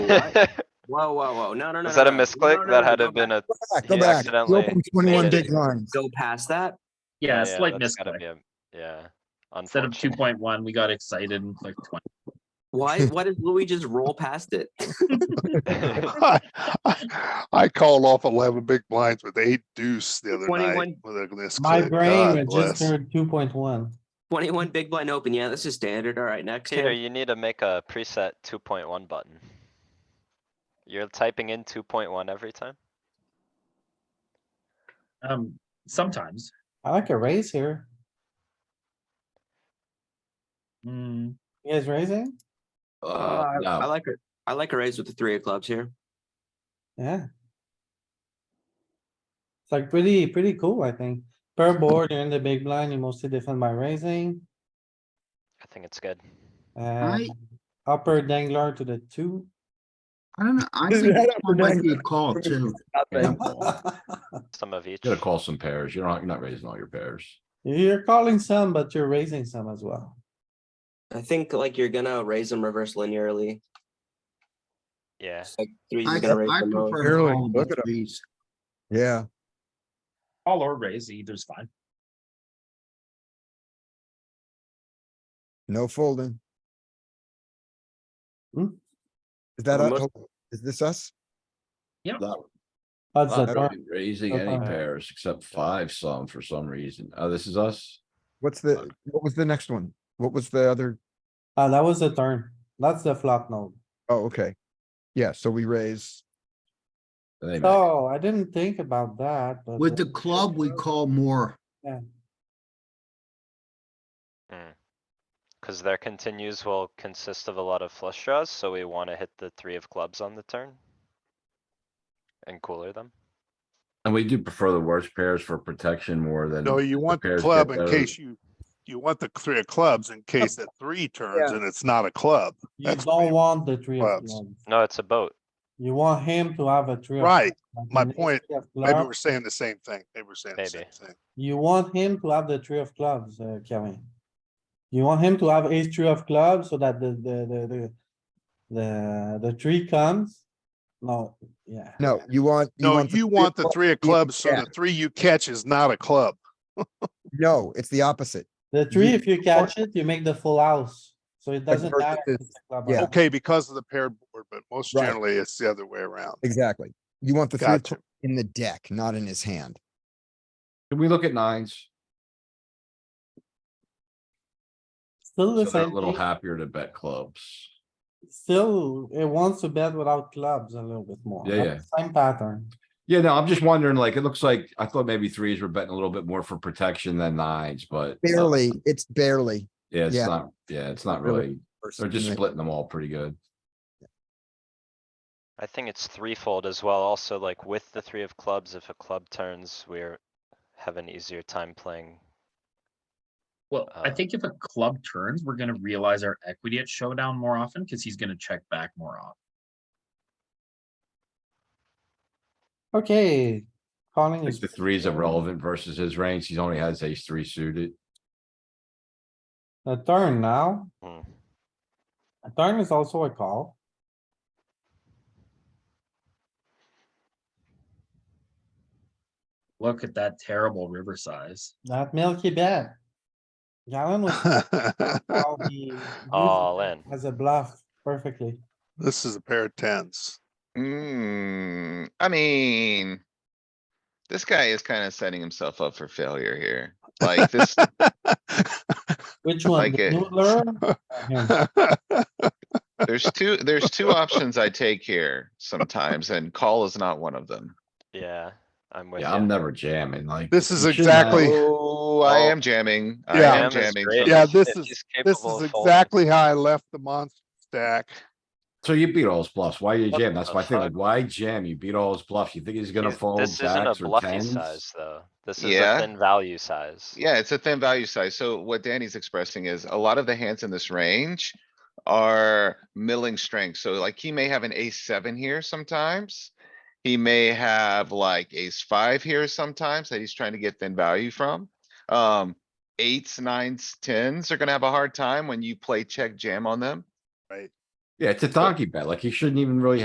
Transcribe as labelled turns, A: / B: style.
A: what? Whoa, whoa, whoa. No, no, no.
B: Was
A: no,
B: that a
A: no.
B: misclick?
A: No, no,
B: That
A: no,
B: had to
A: go
B: have been
A: back.
B: a,
C: back,
B: he
C: go back. You
B: accidentally.
C: opened twenty-one
B: made it.
C: big blinds.
A: Go past that.
D: Yeah, slight
B: that's gotta
D: misclick.
B: be a- Yeah.
D: Instead of two
B: Unfortunate.
D: point one, we got excited and clicked twenty.
A: Why, why did Louis just roll past it?
E: I I called off eleven big blinds with eight deuce the other
A: 21
E: night. with a misclick.
F: My
E: God
F: brain
E: bless.
F: registered two point one.
A: Twenty-one big blind open. Yeah, this is standard. All right, next.
B: Peter,
A: hand.
B: you need to make a preset two point one button. You're typing in two point one every time?
D: Um, sometimes.
F: I like a raise here.
D: Mm,
F: You guys raising?
A: Uh,
G: Uh,
A: I
G: no,
A: like it. I like a raise with the three of clubs here.
F: Yeah. It's like pretty, pretty cool, I think. Per board, you're in the big blind, you mostly defend by raising.
B: I think it's good.
F: Uh,
H: I-
F: upper dangler to the two.
H: I don't know. I
C: Is
H: think
C: that
H: this
C: upper
H: one might
C: deck?
H: be a call too.
G: yeah,
B: Some of each.
G: you gotta call some pairs. You're not, you're not raising all your pairs.
F: You're calling some, but you're raising some as well.
A: I think like you're gonna raise them reverse linearly.
B: Yeah,
A: Like three's
H: I I
A: gonna raise them. low.
H: prefer
C: Barely.
H: call
C: Look
H: the
C: at 'em.
H: threes.
C: Yeah,
D: all or raise, either's fine.
C: no folding.
F: Hmm?
C: Is that, us?
A: Unless-
C: is this us?
G: That-
F: Odds that
G: that would
F: are,
G: be Raising any
F: Uh-huh.
G: pairs except five some for some reason. Oh, this is us?
C: What's the, what was the next one? What was the other?
F: uh, that was the turn. That's the flop node.
C: Oh, okay. Yeah, so we raise.
G: And they make-
F: Oh, I didn't think about that, but.
H: With the club, we call more.
B: cuz their continues will consist of a lot of flush draws, so we wanna hit the three of clubs on the turn. And cooler them.
G: And we do prefer the worst pairs for protection more than.
E: No, you want the
G: pairs
E: club
G: get
E: in
G: those.
E: case you, you want the three of clubs in case that three turns and it's not a club.
F: You
E: That's
F: don't want the three of
E: clubs.
F: clubs.
B: No, it's a boat.
F: You want him to have a three. of
E: Right,
F: clubs, like
E: my
F: you need
E: point.
F: three of
E: Maybe
F: clubs.
E: we're saying the same thing. Maybe we're saying the same
B: Maybe.
E: thing.
F: You want him to have the three of clubs, uh, Kelly. You want him to have ace three of clubs so that the, the, the, the, the, the three comes? No, yeah.
C: No, you want.
E: No,
C: the
E: you
C: three
E: want the
C: o'clock-
E: three of clubs, so
C: yeah.
E: the three you catch is not a club.
C: No, it's the opposite.
F: The three, if you catch it, you make the full house, so it doesn't
C: versus
F: matter. if it's a club or
C: yeah.
F: not.
E: Okay, because of the paired board, but most
C: Right.
E: generally it's the other way around.
C: Exactly. You want the three
E: Gotcha. Oh.
C: o'clock in the deck, not in his hand.
G: Can we look at nines?
F: Still
G: So
F: the
G: they're a
F: same
G: little
F: thing,
G: happier to bet clubs.
F: still, it wants to bet without clubs a little bit more.
G: Yeah,
F: That's the Same pattern.
G: Yeah, no, I'm just wondering, like, it looks like, I thought maybe threes were betting a little bit more for protection than nines, but. uh,
C: Barely, it's barely.
G: Yeah, it's
C: yeah.
G: not, yeah, it's not
C: Really
G: really, they're just splitting them all pretty good.
B: I think it's threefold as well. Also, like with the three of clubs, if a club turns, we're have an easier time playing.
D: Well, I
B: Uh,
D: think if a club turns, we're gonna realize our equity at showdown more often because he's gonna check back more often.
F: Okay,
G: I
F: calling
G: think
F: is.
G: the threes are relevant versus his range. He only has ace three suited.
F: A turn now,
B: Hmm.
F: a turn is also a call.
D: Look at that terrible river size.
F: That milky bet. Galen was. how he used
B: All
F: it
B: in.
F: As a bluff, perfectly.
E: This is a pair of tens.
I: Hmm, I mean. This guy is kinda setting himself up for failure here. Like this,
F: Which one?
I: Like
F: The
I: it.
F: noodler or him?
I: there's two, there's two options I take here sometimes and call is not one of them.
B: Yeah, I'm with
G: Yeah, I'm
B: you.
G: never jamming like.
E: This is
G: you shouldn't have-
E: exactly-
I: Oh, I
B: Oh.
I: am jamming. I
E: Yeah.
I: am
B: Jam is
I: jamming.
B: great.
I: so-
E: Yeah, this
B: If
E: is-
B: he's
E: This
B: capable
E: is
B: of folding,
E: exactly how I left the monster stack.
G: So you beat all his bluffs. Why you
B: What
G: jam? That's
B: the
G: my thing. Like,
B: fuck?
G: why jam? You beat all his bluffs. You think he's gonna
B: he's-
G: fold
B: This isn't a
G: jacks or
B: bluffy
G: tens?
B: size, though. This is a
I: Yeah.
B: thin value size.
I: Yeah, it's a thin value size. So what Danny's expressing is a lot of the hands in this range are milling strength. So like he may have an ace seven here sometimes. He may have like ace five here sometimes that he's trying to get thin value from. Um, eights, nines, tens are gonna have a hard time when you play check jam on them.
G: Yeah, it's a donkey bet. Like, he shouldn't even really